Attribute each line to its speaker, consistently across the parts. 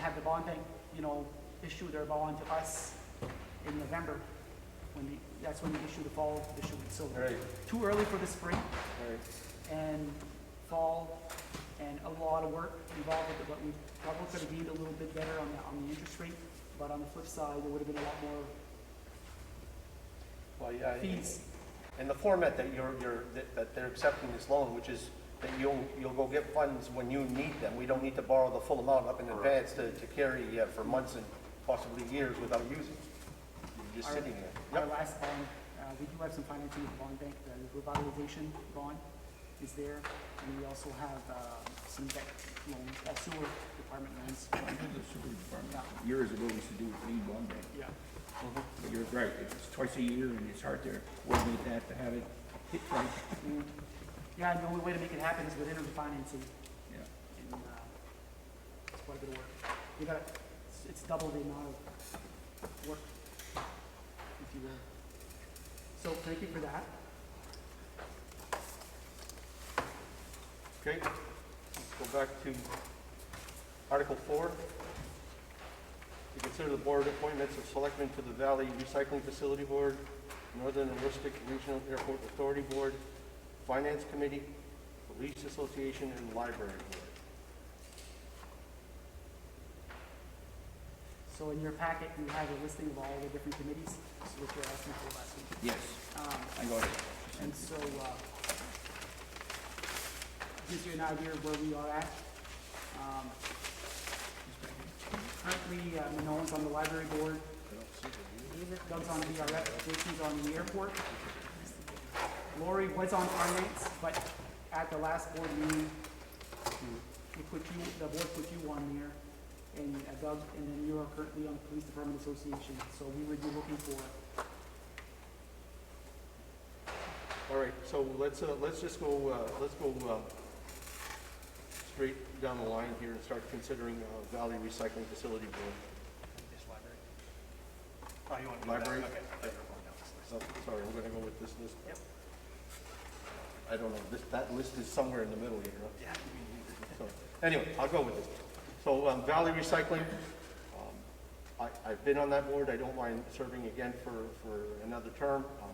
Speaker 1: have the bond bank, you know, issue their bond to us in November, when the, that's when we issue the fall issuance. So
Speaker 2: Right,
Speaker 1: too early for the spring
Speaker 2: right.
Speaker 1: and fall and a lot of work involved with it, but we probably could have been a little bit better on the, on the interest rate. But on the flip side, there would have been a lot more
Speaker 2: Well, yeah. I-
Speaker 1: fees.
Speaker 2: And the format that you're, you're, that- that they're accepting this loan, which is that you'll, you'll go get funds when you need them. We don't need to borrow the full amount up in advance to, to carry uh, for months and possibly years without using. You're just
Speaker 1: Our-
Speaker 2: sitting there.
Speaker 1: Our
Speaker 2: Yep,
Speaker 1: last bond, uh, we do have some financing with the bond bank, the revitalization bond is there. And we also have, uh, some debt loans, uh, sewer department loans.
Speaker 3: I did the sewer department years ago, used to do with lead bond bank,
Speaker 1: Yeah.
Speaker 3: but you're right, it's twice a year and it's hard to coordinate that to have it hit right,
Speaker 1: Yeah, and the only way to make it happen is with interim financing
Speaker 3: yeah.
Speaker 1: and, uh, it's quite a bit of work. We got, it's- it's double the amount of work, if you will. So thank you for that.
Speaker 2: okay. Let's Go back to Article Four. To consider the board appointments of selectmen to the Valley Recycling Facility Board, Northern and Rustic Regional Airport Authority Board, Finance Committee, Police Association, and Library Board.
Speaker 1: So in your packet, you have a listing of all the different committees, which is what you're asking for last week.
Speaker 3: Yes,
Speaker 1: Um,
Speaker 3: I got it.
Speaker 1: And so, uh, gives you an idea of where we are at. Um, Currently, uh, Manon's on the library board. Doug's on VRF, Jason's on the airport. Lori was on finance, but at the last board meeting, we put you, the board put you on there, and uh, Doug, and then you are currently on the Police Department Association, so we would be looking for
Speaker 2: All right, so let's, uh, let's just go, uh, let's go, uh, straight down the line here and start considering, uh, Valley Recycling Facility Board.
Speaker 4: This library? Oh, you want to do that?
Speaker 2: Library?
Speaker 4: Okay.
Speaker 2: So, Sorry, we're gonna go with this list. I don't know, this, that list is somewhere in the middle here, huh?
Speaker 4: Yeah.
Speaker 2: So, Anyway, I'll go with this. So um, Valley Recycling, um, I, I've been on that board, I don't mind serving again for, for another term. Um,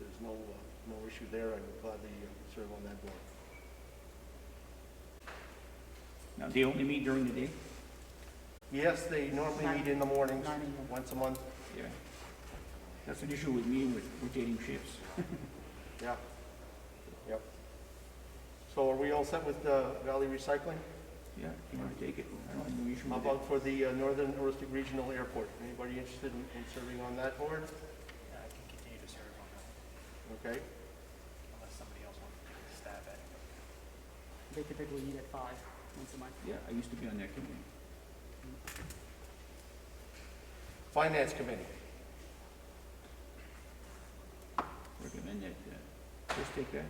Speaker 2: if There's no, uh, no issue there, I would gladly uh, serve on that board.
Speaker 3: Now, they only meet during the day?
Speaker 2: Yes, they normally meet in the mornings,
Speaker 1: Nine AM.
Speaker 2: once a month,
Speaker 3: Yeah. That's an issue with me with rotating shifts.
Speaker 2: yeah, yep. So are we all set with uh, Valley Recycling?
Speaker 3: Yeah, if you wanna take it, I don't have no issue
Speaker 2: How
Speaker 3: with it.
Speaker 2: about for the uh, Northern Aristic Regional Airport? Anybody interested in in serving on that board?
Speaker 4: Yeah, I can continue to serve on that,
Speaker 2: Okay,
Speaker 4: unless somebody else wants to take a stab at it.
Speaker 1: They typically meet at five once a month.
Speaker 3: Yeah, I used to be on that committee.
Speaker 2: Finance Committee.
Speaker 3: Recommend that, uh, just take that.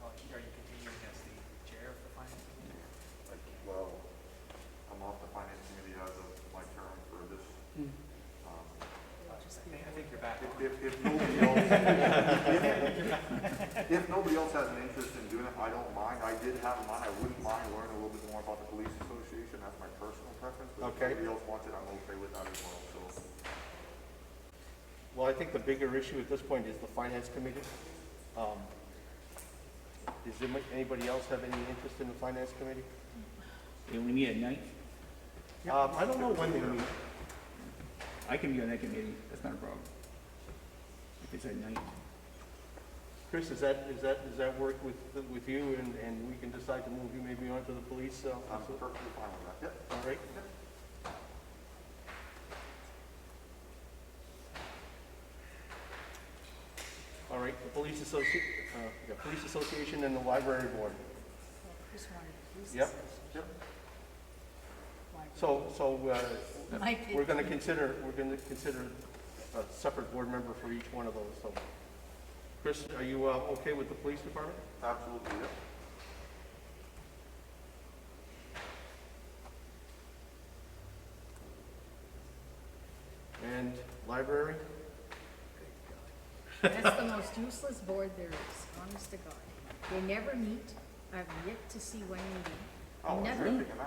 Speaker 4: Well, Are you continuing as the chair of the finance committee?
Speaker 5: Like, well, I'm off the finance committee as of my term for this,
Speaker 2: Hmm.
Speaker 1: Mm.
Speaker 5: um,
Speaker 4: I think, I think you're back on.
Speaker 5: if, if, if nobody else, if nobody else has an interest in doing it, I don't mind, I did have mine, I wouldn't mind learning a little bit more about the police association, that's my personal preference, but
Speaker 2: Okay.
Speaker 5: if nobody else wants it, I'm okay with that as well, so.
Speaker 2: Well, I think the bigger issue at this point is the finance committee. Um, Does anybody- anybody else have any interest in the finance committee?
Speaker 3: They only meet at night?
Speaker 1: Yep.
Speaker 2: Um, I don't know when they meet.
Speaker 3: I can be on that committee, that's not a problem. If it's at night.
Speaker 2: Chris, is that, is that, does that work with, with you and, and we can decide to move you maybe onto the police? uh,
Speaker 5: I'm perfectly fine with that, yep.
Speaker 2: All right. All right, the police associ, uh, yeah, police association and the library board.
Speaker 6: Just wanted to use
Speaker 2: Yep,
Speaker 6: this.
Speaker 2: yep.
Speaker 6: Why-
Speaker 2: So, so, uh,
Speaker 6: Mike,
Speaker 2: we're gonna consider, we're gonna consider a separate board member for each one of those, so. Chris, are you, uh, okay with the police department?
Speaker 5: Absolutely, yep.
Speaker 2: And library?
Speaker 6: That's the most useless board there is, honest to God. They never meet. I've yet to see one meeting.
Speaker 5: Oh, I'm
Speaker 6: Never.
Speaker 5: tripping, and I